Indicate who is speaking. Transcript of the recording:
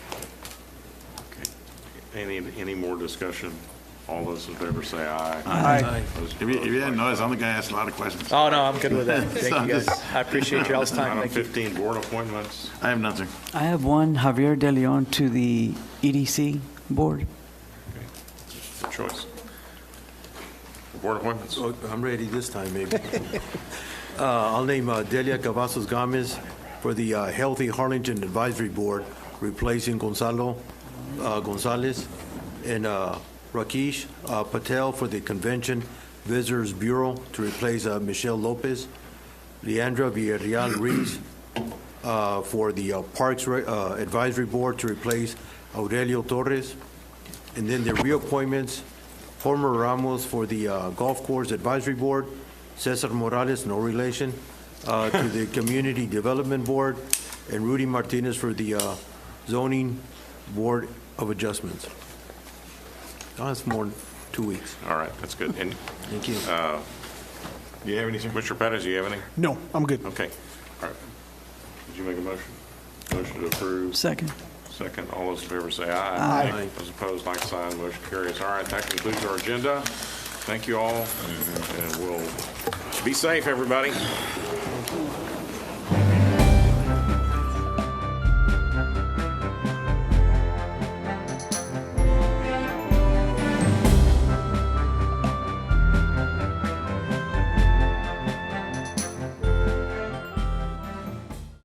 Speaker 1: Any, any more discussion? All those in favor say aye.
Speaker 2: Aye.
Speaker 1: Those
Speaker 3: If you, if you didn't
Speaker 1: opposed,
Speaker 3: notice, I'm the guy asking a lot of questions.
Speaker 2: Oh, no, I'm good with that. Thank you, guys. I appreciate y'all's
Speaker 1: like sign.
Speaker 2: time.
Speaker 1: Item
Speaker 2: Thank you.
Speaker 1: 15, board appointments.
Speaker 3: I have nothing.
Speaker 4: I have one, Javier De Leon to the EDC Board.
Speaker 1: The choice. Board appointments.
Speaker 5: Oh, I'm ready this time, maybe. Uh, I'll name uh, Delia Cavazos Gomez for the uh, Healthy Harlingen Advisory Board, replacing Gonzalo uh, Gonzalez, and uh, Rakesh uh, Patel for the Convention Visitors Bureau to replace uh, Michelle Lopez, Leandra Villarreal Reese uh, for the uh, Parks Re- uh, Advisory Board to replace Aurelio Torres, and then the reappointments, Homer Ramos for the uh, Golf Course Advisory Board, Cesar Morales, no relation, uh, to the Community Development Board, and Rudy Martinez for the uh, Zoning Board of Adjustments. That's more than two weeks.
Speaker 1: All right, that's good. And
Speaker 5: Thank you.
Speaker 1: do you have any, Commissioner Pettis, do you have any?
Speaker 6: No, I'm good.
Speaker 1: Okay, all right. Did you make a motion? Motion to approve.
Speaker 4: Second.
Speaker 1: Second, all those in favor say aye. Aye. Those opposed, like sign, motion carries. All right, that concludes our agenda. Thank you all, and we'll, be safe, everybody.